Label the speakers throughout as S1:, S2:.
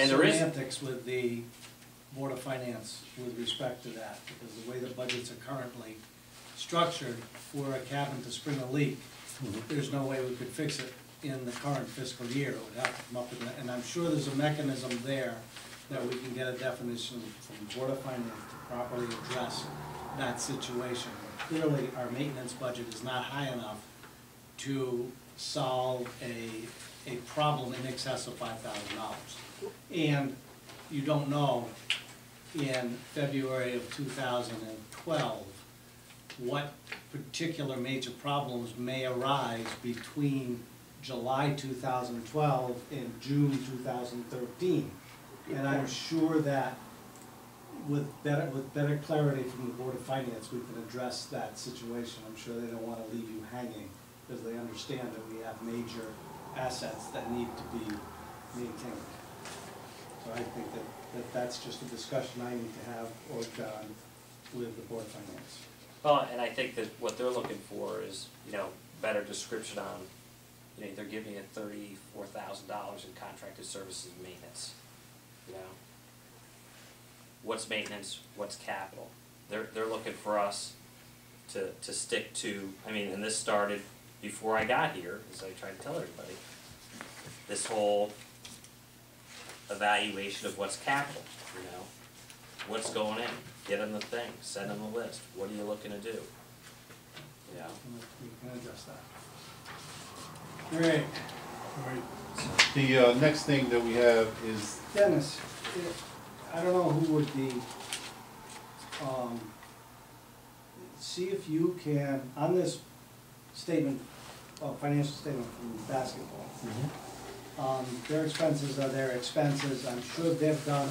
S1: And there is,
S2: Semantics with the Board of Finance with respect to that, because the way the budgets are currently structured, for a cabin to spring a leak, there's no way we could fix it in the current fiscal year, it would have to come up with, and I'm sure there's a mechanism there that we can get a definition from the Board of Finance to properly address that situation. Clearly, our maintenance budget is not high enough to solve a, a problem in excess of five thousand dollars. And you don't know in February of two thousand and twelve what particular major problems may arise between July two thousand and twelve and June two thousand and thirteen. And I'm sure that with better, with better clarity from the Board of Finance, we can address that situation. I'm sure they don't wanna leave you hanging, because they understand that we have major assets that need to be maintained. So I think that, that that's just a discussion I need to have or John with the Board of Finance.
S1: well, and I think that what they're looking for is, you know, better description on, you know, they're giving it thirty-four thousand dollars in contracted services and maintenance, you know? What's maintenance, what's capital? They're, they're looking for us to, to stick to, I mean, and this started before I got here, as I tried to tell everybody, this whole evaluation of what's capital, you know? What's going in? Get them the thing, send them a list, what are you looking to do? You know,
S2: And we can address that. Great,
S3: The uh, next thing that we have is,
S2: Dennis, eh, I don't know who would be, um, see if you can, on this statement, uh, financial statement from basketball, um, their expenses are their expenses, I'm sure they've done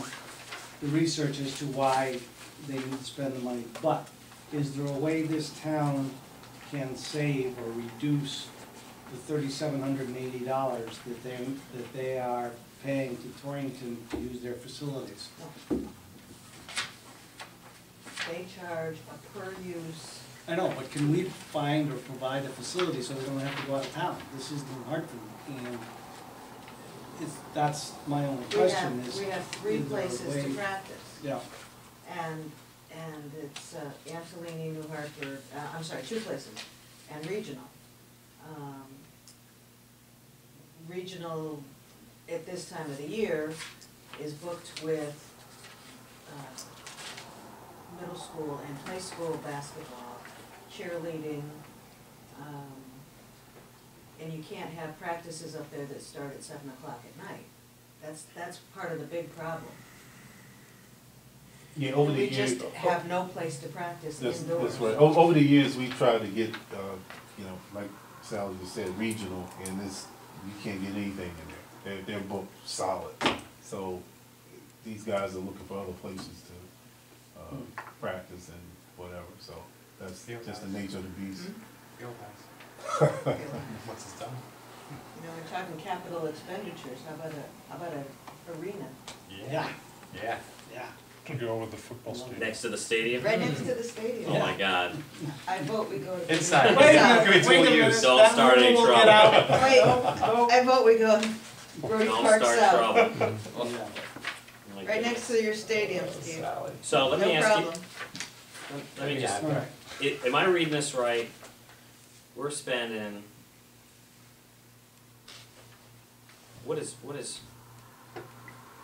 S2: the research as to why they need to spend the money, but is there a way this town can save or reduce the thirty-seven hundred and eighty dollars that they, that they are paying to Torrington to use their facilities?
S4: They charge a per use,
S2: I know, but can we find or provide a facility so they don't have to go out of town? This is New Hartford, and it's, that's my only
S4: we
S2: question
S4: have,
S2: is.
S4: we have three
S2: is there a
S4: places
S2: way-
S4: to practice.
S2: Yeah,
S4: And, and it's uh, Angelini, New Hartford, uh, I'm sorry, two places, and regional. Um, Regional, at this time of the year, is booked with uh, middle school and high school basketball, cheerleading. um, And you can't have practices up there that start at seven o'clock at night. That's, that's part of the big problem.
S3: yeah, over the
S4: We
S3: years.
S4: just have no place to practice
S3: That's,
S4: indoors.
S3: that's right,
S2: Oh.
S3: O- over the years, we tried to get, uh, you know, like Sally just said, regional, and this, you can't get anything in there, they're, they're both solid. So, these guys are looking for other places to, uh, practice and whatever, so, that's
S5: Field
S3: just the nature of the beast.
S4: Hmm?
S5: Field house.
S4: You
S5: What's this done?
S4: know, we're talking capital expenditures, how about a, how about a arena?
S2: yeah,
S5: Yeah.
S2: yeah.
S6: To go with the football stadium.
S1: next to the stadium?
S4: Right next to the stadium.
S1: Oh my god,
S4: I vote we go to.
S5: Inside.
S2: Wait a
S4: Inside.
S2: minute,
S5: It's
S2: wait a
S5: all
S2: minute.
S5: used.
S1: Don't
S2: That Oh,
S1: start any
S2: rule will get
S1: trouble.
S2: out.
S4: Wait,
S2: Nope,
S4: I vote we go Roy
S1: don't
S4: Park South,
S1: start trouble.
S2: nope. Yeah.
S1: Oh my
S4: right
S1: goodness.
S4: next to your stadium, Steve.
S5: Sally.
S1: So let me
S4: No
S1: ask you,
S4: problem.
S1: let me just,
S2: All right,
S1: i- am I reading this right? We're spending. What is, what is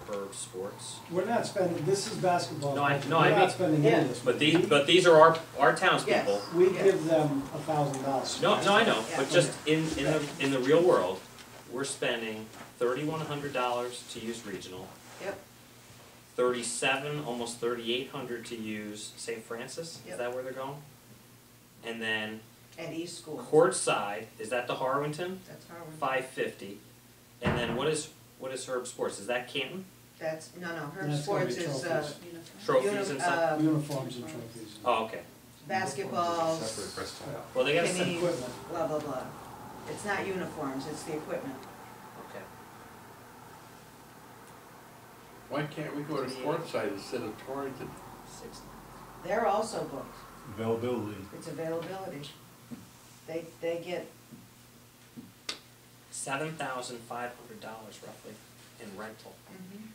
S1: Burb Sports?
S2: we're not spending, this is basketball.
S1: No, I- no, I
S2: We're
S1: mean-
S2: not spending any of this.
S1: But these,
S2: money.
S1: but these are our, our townspeople.
S4: Yes.
S2: We give them a thousand dollars.
S1: No, no, I know, but
S4: Yeah.
S1: just in, in the, in the real world, we're spending thirty-one hundred dollars to use regional.
S4: Yep.
S1: Thirty-seven, almost thirty-eight hundred to use St. Francis, is
S4: Yep.
S1: that where they're going? And then
S4: At East School,
S1: courtside, is that the Harwinton?
S4: that's Harwin,
S1: Five fifty. And then what is, what is Herb Sports, is that Canton?
S4: that's, no, no, Herb
S2: That's gonna be
S4: Sports is, uh,
S2: trophies.
S1: Trophies and stuff?
S4: um,
S2: Uniforms and trophies. and
S1: Oh, okay,
S4: basketball,
S5: Separate breast tile.
S1: well, they gotta
S4: Can
S1: send,
S4: you-
S2: Equipment.
S4: blah, blah, blah. It's not uniforms, it's the equipment.
S1: okay.
S7: Why can't we go to Portside instead of Torrington?
S1: Six-
S4: They're also booked.
S3: Availability.
S4: It's availability. They, they get,
S1: Seven thousand five hundred dollars roughly in rental.
S4: mhm.